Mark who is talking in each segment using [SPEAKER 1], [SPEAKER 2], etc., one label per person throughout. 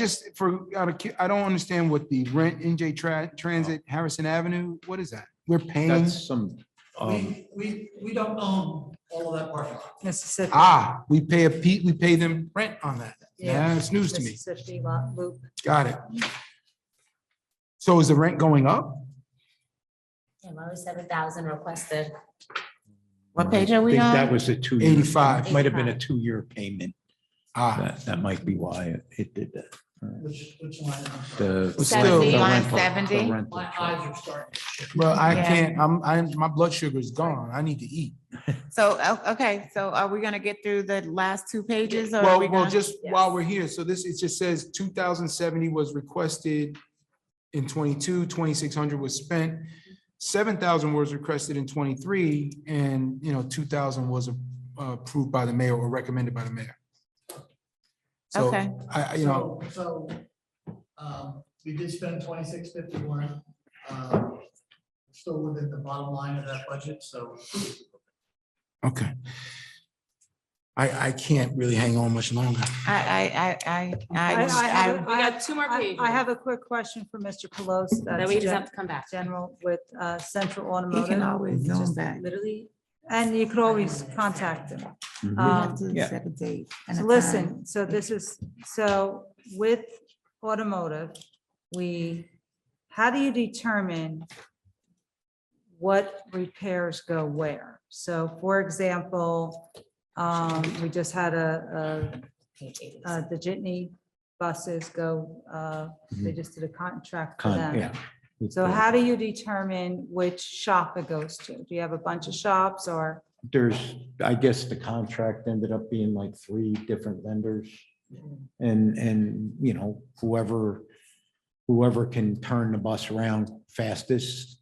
[SPEAKER 1] Just for, out of cu- I don't understand what the rent NJ Tra- Transit Harrison Avenue, what is that? We're paying,
[SPEAKER 2] Oh. That's some, um,
[SPEAKER 3] We, we, we don't own all of that parking lot.
[SPEAKER 4] Mississippi.
[SPEAKER 1] ah, we pay a Pete, we pay them rent on that. Yeah, it's news to me.
[SPEAKER 4] Mississippi lot loop.
[SPEAKER 1] Got it. So is the rent going up?
[SPEAKER 5] Seven thousand requested.
[SPEAKER 2] I
[SPEAKER 6] What page are we
[SPEAKER 2] think that
[SPEAKER 6] on?
[SPEAKER 2] was a two.
[SPEAKER 1] 85.
[SPEAKER 2] Might have been a two-year payment.
[SPEAKER 1] Ah,
[SPEAKER 2] That, that might be why it- it did that.
[SPEAKER 3] Which, which line? am I on?
[SPEAKER 2] The.
[SPEAKER 1] Still-
[SPEAKER 2] the
[SPEAKER 6] Seventy on
[SPEAKER 2] rental- the
[SPEAKER 6] seventy?
[SPEAKER 2] rental
[SPEAKER 3] My
[SPEAKER 2] charge.
[SPEAKER 3] eyes are starting to shift.
[SPEAKER 1] well, I
[SPEAKER 6] Yeah.
[SPEAKER 1] can't, I'm, I, my blood sugar's gone. I need to eat.
[SPEAKER 6] So, o- okay, so are we gonna get through the last two pages or? are we
[SPEAKER 1] Well, well,
[SPEAKER 6] gonna-
[SPEAKER 1] just while we're here, so this, it just says two thousand seventy was requested in 22, 2600 was spent, seven thousand was requested in twenty-three, and, you know, two thousand was uh, approved by the mayor or recommended by the mayor. So,
[SPEAKER 6] Okay.
[SPEAKER 1] I, I- you know,
[SPEAKER 3] So, so, um, we did spend twenty-six fifty-one, um, still within the bottom line of that budget, so.
[SPEAKER 1] okay. I, I can't really hang on much longer.
[SPEAKER 6] I, I, I, I, I,
[SPEAKER 4] have-
[SPEAKER 5] We got two more
[SPEAKER 4] I
[SPEAKER 5] pages.
[SPEAKER 4] I have a quick question for Mr. Pelosi.
[SPEAKER 5] Then
[SPEAKER 4] that's
[SPEAKER 5] we just
[SPEAKER 4] gen-
[SPEAKER 5] have to come back.
[SPEAKER 4] General with uh, Central
[SPEAKER 6] he can
[SPEAKER 4] Automotive.
[SPEAKER 6] always zoom back.
[SPEAKER 5] Literally.
[SPEAKER 4] And you could always contact them.
[SPEAKER 2] Mhm.
[SPEAKER 6] Mm-hmm. We have
[SPEAKER 4] Um,
[SPEAKER 6] to
[SPEAKER 2] Yeah.
[SPEAKER 6] set a date and a
[SPEAKER 4] So
[SPEAKER 6] time.
[SPEAKER 4] Listen, so this is, so with automotive, we, how do you determine what repairs go where? So for example, um, we just had a, a uh, the Jitney buses go, uh, they just did a contract for
[SPEAKER 2] Mm-hmm. Con-
[SPEAKER 4] them.
[SPEAKER 2] yeah.
[SPEAKER 4] So how do you determine which shop it goes to? Do you have a bunch of shops or?
[SPEAKER 2] There's, I guess the contract ended up being like three different vendors. And, and, you know, whoever, whoever can turn the bus around fastest,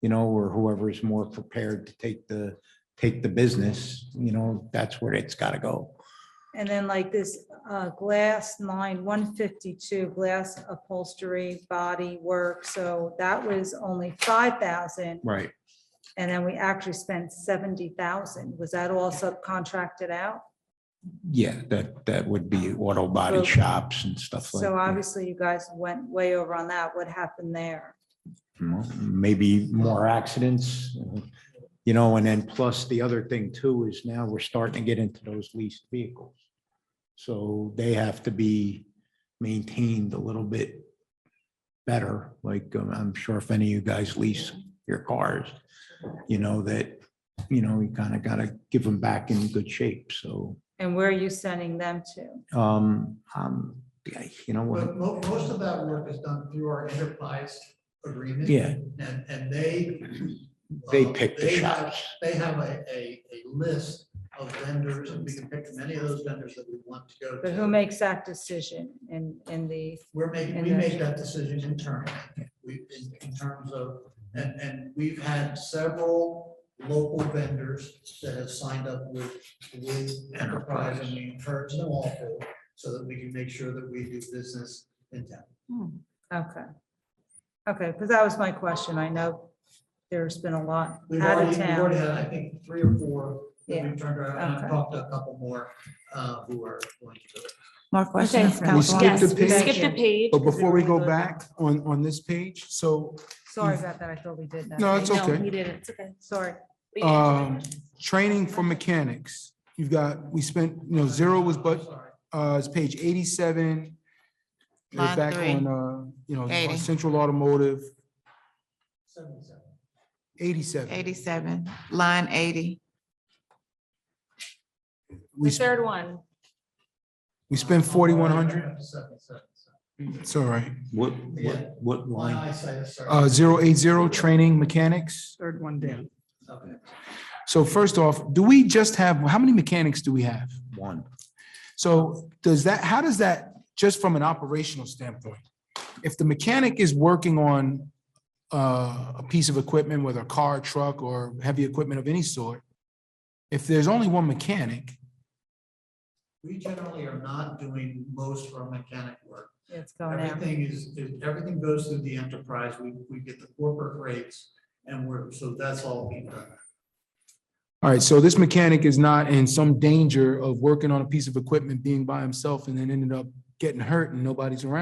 [SPEAKER 2] you know, or whoever is more prepared to take the, take the business, you know, that's where it's gotta go.
[SPEAKER 4] And then like this, uh, glass line one fifty-two, glass upholstery, body work. So that was only five thousand.
[SPEAKER 2] Right.
[SPEAKER 4] And then we actually spent seventy thousand. Was that all subcontracted out?
[SPEAKER 2] Yeah, that, that would be auto
[SPEAKER 4] So-
[SPEAKER 2] body shops and stuff like.
[SPEAKER 4] So
[SPEAKER 2] that.
[SPEAKER 4] obviously you guys went way over on that. What happened there?
[SPEAKER 2] Well, Maybe more accidents, you know, and then plus the other thing too is now we're starting to get into those leased vehicles. So they have to be maintained a little bit better, like um, I'm sure if any of you guys lease your cars, you know, that, you know, you kind of got to give them back in good shape, so.
[SPEAKER 4] And where are you sending them to?
[SPEAKER 2] um, um, yeah, You know what,
[SPEAKER 3] But mo- most of that work is done through our enterprise agreement.
[SPEAKER 2] yeah,
[SPEAKER 3] And, and they.
[SPEAKER 2] they
[SPEAKER 3] uh,
[SPEAKER 2] pick the
[SPEAKER 3] they have-
[SPEAKER 2] shops.
[SPEAKER 3] They have a, a, a list of vendors, and we can pick many of those vendors that we want to go to.
[SPEAKER 4] But who makes that decision in, in the,
[SPEAKER 3] We're making,
[SPEAKER 4] And
[SPEAKER 3] we
[SPEAKER 4] then-
[SPEAKER 3] make that decision internally, we, in, in terms of, and, and we've had several local vendors that have signed up with, with Enterprise, and we encourage them all to, so that we can make sure that we do business in town.
[SPEAKER 4] okay. Okay, because that was my question. I know there's been a lot
[SPEAKER 3] We've
[SPEAKER 4] out
[SPEAKER 3] already,
[SPEAKER 4] of
[SPEAKER 3] we've already
[SPEAKER 4] town.
[SPEAKER 3] had, I think, three or four that
[SPEAKER 4] Yeah,
[SPEAKER 3] we've turned around, and
[SPEAKER 4] okay.
[SPEAKER 3] I've talked to a couple more, uh, who are going to.
[SPEAKER 6] More questions,
[SPEAKER 1] We skipped the
[SPEAKER 6] Councilwoman?
[SPEAKER 5] Yes, we
[SPEAKER 1] page. Oh,
[SPEAKER 5] skipped the page.
[SPEAKER 1] But before we go back on, on this page, so,
[SPEAKER 4] Sorry about that. I thought we did that.
[SPEAKER 1] no, it's
[SPEAKER 5] No,
[SPEAKER 1] okay.
[SPEAKER 5] We did it. It's okay.
[SPEAKER 4] Sorry.
[SPEAKER 5] We didn't answer
[SPEAKER 1] Um,
[SPEAKER 5] that question.
[SPEAKER 1] training for mechanics, you've got, we spent, you know, zero was but,
[SPEAKER 3] Sorry.
[SPEAKER 1] uh, it's page eighty-seven. We're
[SPEAKER 6] Line
[SPEAKER 1] back
[SPEAKER 6] three.
[SPEAKER 1] on, uh, you know,
[SPEAKER 6] Eighty.
[SPEAKER 1] on Central Automotive,
[SPEAKER 3] Seventy-seven.
[SPEAKER 1] eighty-seven.
[SPEAKER 6] Eighty-seven, line eighty.
[SPEAKER 1] We,
[SPEAKER 5] The
[SPEAKER 1] sp-
[SPEAKER 5] third one.
[SPEAKER 1] we spent forty-one hundred,
[SPEAKER 3] Up to Seventy-seven.
[SPEAKER 1] it's all right.
[SPEAKER 2] what, what, what
[SPEAKER 3] My
[SPEAKER 2] line?
[SPEAKER 3] eyesight is sorry.
[SPEAKER 1] Uh, zero eight zero, training mechanics.
[SPEAKER 7] Third one down.
[SPEAKER 3] Okay.
[SPEAKER 1] So first off, do we just have, how many mechanics do we have?
[SPEAKER 2] One.
[SPEAKER 1] So does that, how does that, just from an operational standpoint? If the mechanic is working on uh, a piece of equipment, whether a car, truck, or heavy equipment of any sort, if there's only one mechanic,
[SPEAKER 3] We generally are not doing most of our mechanic work.
[SPEAKER 4] It's going out.
[SPEAKER 3] Everything is, is- everything goes through the enterprise. We, we get the corporate rates and we're, so that's all we do.
[SPEAKER 1] all right, so this mechanic is not in some danger of working on a piece of equipment, being by himself, and then ended up getting hurt and nobody's around.